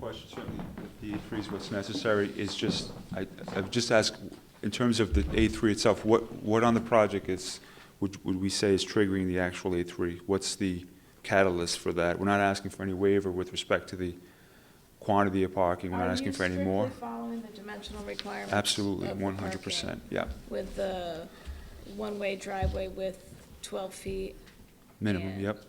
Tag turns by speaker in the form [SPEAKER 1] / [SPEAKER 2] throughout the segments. [SPEAKER 1] question, certainly, if the A3 is what's necessary, is just, I, I've just asked, in terms of the A3 itself, what, what on the project is, would, would we say is triggering the actual A3? What's the catalyst for that? We're not asking for any waiver with respect to the quantity of parking, we're not asking for any
[SPEAKER 2] Are
[SPEAKER 1] more.
[SPEAKER 2] you strictly following the dimensional requirements?
[SPEAKER 1] Absolutely,
[SPEAKER 2] of the
[SPEAKER 1] one hundred percent, yeah,
[SPEAKER 2] parking With the one-way driveway with 12 feet,
[SPEAKER 1] minimum,
[SPEAKER 2] And-
[SPEAKER 1] yep,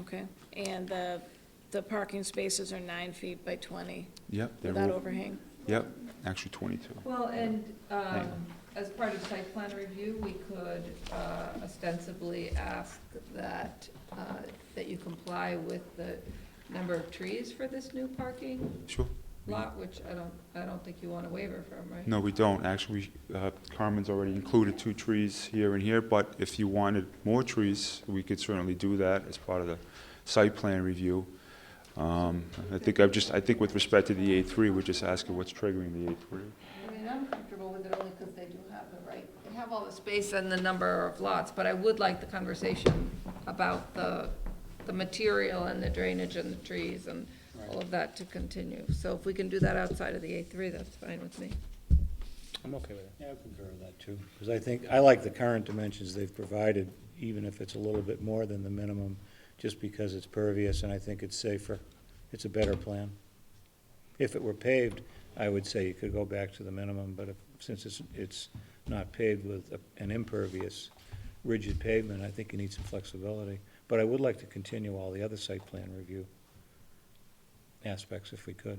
[SPEAKER 2] okay, and the, the parking spaces are nine feet by 20
[SPEAKER 1] yep. they're
[SPEAKER 2] without
[SPEAKER 1] all-
[SPEAKER 2] overhang?
[SPEAKER 1] Yep, actually twenty-two,
[SPEAKER 3] Well, and
[SPEAKER 1] Thank
[SPEAKER 3] um, as part of site plan review, we could uh, ostensibly ask that, uh, that you comply with the number of trees for this new parking
[SPEAKER 1] sure.
[SPEAKER 3] lot, which I don't, I don't think you want a waiver from, right?
[SPEAKER 1] No, we don't. Actually, uh, Carmen's already included two trees here and here, but if you wanted more trees, we could certainly do that as part of the site plan review. Um, I think I've just, I think with respect to the A3, we're just asking what's triggering the A3.
[SPEAKER 3] I mean, I'm comfortable with it only because they do have the right, they have all the space and the number of lots, but I would like the conversation about the, the material and the drainage and the trees and all of that to continue. So if we can do that outside of the A three, that's fine with me.
[SPEAKER 4] I'm okay with it. Yeah, I concur with that, too. Because I think, I like the current dimensions they've provided, even if it's a little bit more than the minimum, just because it's pervious, and I think it's safer. It's a better plan. If it were paved, I would say you could go back to the minimum, but if, since it's, it's not paved with a- an impervious, rigid pavement, I think you need some flexibility. But I would like to continue all the other site plan review aspects if we could.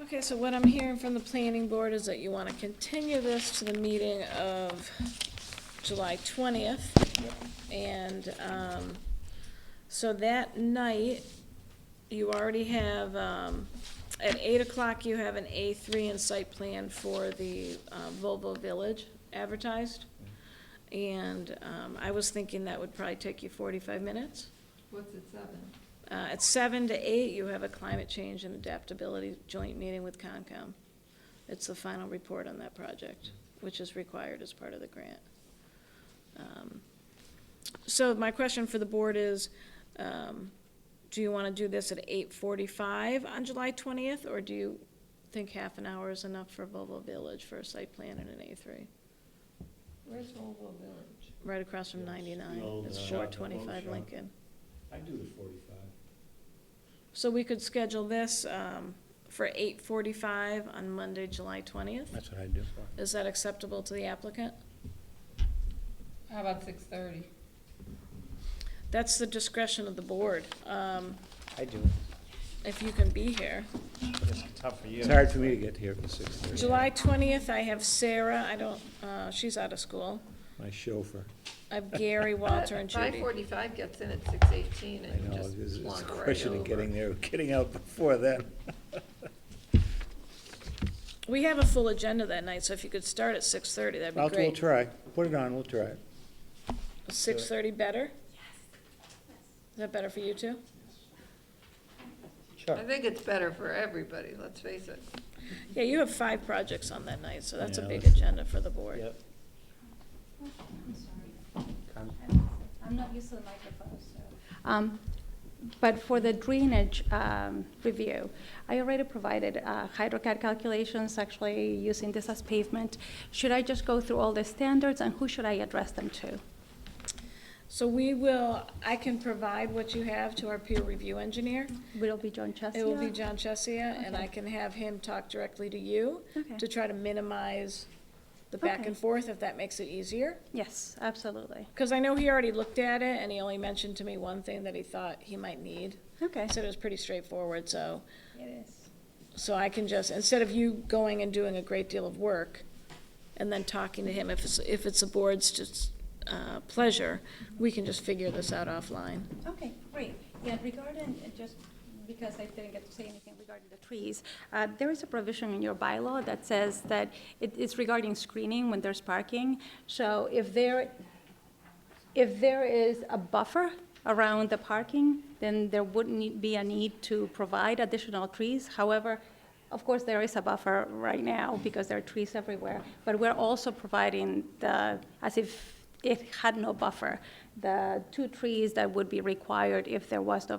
[SPEAKER 2] Okay, so what I'm hearing from the planning board is that you want to continue this to the meeting of July 20th. And um, so that night, you already have, um, at 8 o'clock, you have an A3 in site plan for the uh, Volvo Village advertised. And um, I was thinking that would probably take you 45 minutes.
[SPEAKER 3] What's at seven?
[SPEAKER 2] Uh, At seven to eight, you have a climate change and adaptability joint meeting with Concom. It's the final report on that project, which is required as part of the grant. Um, So my question for the board is, um, do you want to do this at eight forty-five on July twentieth? Or do you think half an hour is enough for Volvo Village for a site plan and an A three?
[SPEAKER 3] Where's Oval Village?
[SPEAKER 2] Right across from
[SPEAKER 5] Yes, the
[SPEAKER 2] ninety-nine,
[SPEAKER 5] old,
[SPEAKER 2] it's
[SPEAKER 5] uh,
[SPEAKER 2] four
[SPEAKER 5] shop, the boat
[SPEAKER 2] twenty-five
[SPEAKER 5] shop.
[SPEAKER 2] Lincoln.
[SPEAKER 5] I do the forty-five.
[SPEAKER 2] So we could schedule this um, for eight forty-five on Monday, July twentieth?
[SPEAKER 4] That's what I'd do.
[SPEAKER 2] Is that acceptable to the applicant?
[SPEAKER 3] How about six thirty?
[SPEAKER 2] That's the discretion of the board, um,
[SPEAKER 6] I do.
[SPEAKER 2] if you can be here.
[SPEAKER 6] It's tough for you.
[SPEAKER 4] It's hard for me to get here for six thirty.
[SPEAKER 2] July twentieth, I have Sarah, I don't, uh, she's out of school.
[SPEAKER 4] My chauffeur.
[SPEAKER 2] I have Gary, Walter, and
[SPEAKER 3] Five
[SPEAKER 2] Judy.
[SPEAKER 3] forty-five gets in at six eighteen
[SPEAKER 4] I
[SPEAKER 3] and
[SPEAKER 4] know,
[SPEAKER 3] you
[SPEAKER 4] it's
[SPEAKER 3] just
[SPEAKER 4] it's a
[SPEAKER 3] wander right
[SPEAKER 4] question of
[SPEAKER 3] over.
[SPEAKER 4] getting there, getting out before then.
[SPEAKER 2] We have a full agenda that night, so if you could start at six thirty, that'd
[SPEAKER 4] I'll,
[SPEAKER 2] be
[SPEAKER 4] we'll
[SPEAKER 2] great.
[SPEAKER 4] try. Put it on, we'll try it.
[SPEAKER 2] Six thirty better? Is that better for you two?
[SPEAKER 6] Sure.
[SPEAKER 3] I think it's better for everybody, let's face it.
[SPEAKER 2] Yeah, you have five projects on that night, so that's a
[SPEAKER 4] Yeah,
[SPEAKER 2] big
[SPEAKER 4] that's-
[SPEAKER 2] agenda for the board.
[SPEAKER 6] Yep.
[SPEAKER 7] I'm sorry. I'm- I'm not used to the microphone, so. Um, But for the drainage um, review, I already provided uh, HydroCAD calculations, actually using this as pavement. Should I just go through all the standards, and who should I address them to?
[SPEAKER 2] So we will, I can provide what you have to our peer review engineer.
[SPEAKER 7] Will it be John Chesia?
[SPEAKER 2] It will be John Chesia, and I
[SPEAKER 7] Okay.
[SPEAKER 2] can have him talk directly to you
[SPEAKER 7] Okay.
[SPEAKER 2] to try to minimize the back
[SPEAKER 7] Okay.
[SPEAKER 2] and forth, if that makes it easier.
[SPEAKER 7] Yes, absolutely.
[SPEAKER 2] Because I know he already looked at it, and he only mentioned to me one thing that he thought he might need.
[SPEAKER 7] Okay.
[SPEAKER 2] I said it was pretty straightforward, so,
[SPEAKER 7] It is.
[SPEAKER 2] so I can just, instead of you going and doing a great deal of work and then talking to him, if it's, if it's the board's just, uh, pleasure, we can just figure this out offline.
[SPEAKER 7] Okay, great. Yeah, regarding, uh, just because I didn't get to say anything regarding the trees, uh, there is a provision in your bylaw that says that it is regarding screening when there's parking. So if there, if there is a buffer around the parking, then there wouldn't need- be a need to provide additional trees. However, of course, there is a buffer right now because there are trees everywhere, but we're also providing the, as if it had no buffer, the two trees that would be required if there was no